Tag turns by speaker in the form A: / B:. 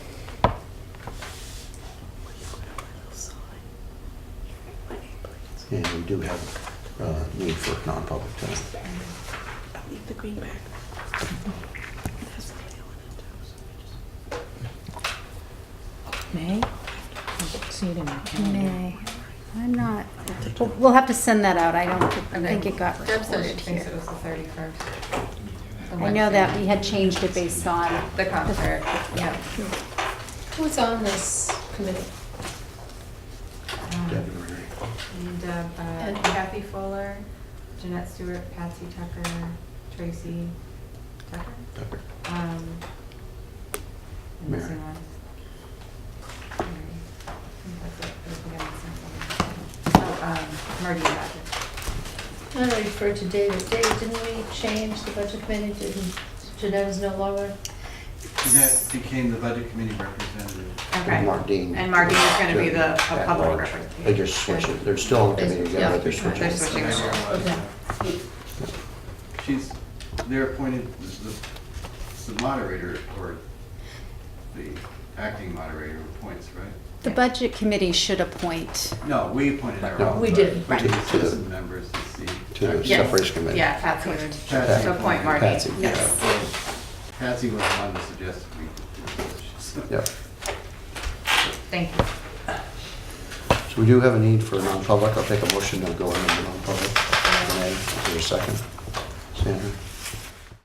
A: And we do have uh, need for non-public tonight.
B: I'll leave the green back. It has the tail in it, so I just-
C: May? I don't see it in my calendar.
D: May. I'm not,
B: I'll take
D: we'll,
B: it.
D: we'll have to send that out. I don't think it got
E: Deb said she
D: recorded
E: thinks it
D: here.
E: was the thirty-first.
D: I know that we had changed it based on.
E: The concert, yeah.
F: Who's on this committee?
E: Mm.
A: Debbie Ray.
E: Um, And uh, uh, Kathy Fuller, Jeanette Stewart, Patsy Tucker, Tracy Tucker.
A: Tucker.
E: Um, I'm
A: Mary.
E: missing one. Mary. I think that's it. I think I'm missing someone. Oh, um, Marty Rogers.
F: I referred to David. David, didn't we change the budget committee? Didn't, Jeanette is no longer?
G: Jeanette became the budget committee representative.
E: Okay.
A: Mark Dean.
E: And Mark Dean is gonna be the, a
A: At
E: public
A: large.
E: representative.
A: They just switched it. They're still on the committee together, but they're
F: Yeah.
A: switching.
E: They're switching it.
F: Okay.
G: She's, they're appointed, the- the moderator or the acting moderator appoints, right?
D: The budget committee should appoint.
G: No, we appointed our own.
F: We
G: but
F: did,
G: We
A: right.
G: just
A: To the-
G: as members to see.
A: To the
E: Yes.
A: separation committee.
E: Yeah, Patsy would.
G: Patsy
E: To appoint Marty.
A: Patsy,
G: Yeah,
E: Yes.
G: well, Patsy was the one that suggested we do this. so-
A: Yep.
E: Thank you.
A: So we do have a need for a non-public. I'll take a motion to go into non-public. Renee, is there a second? Sandra?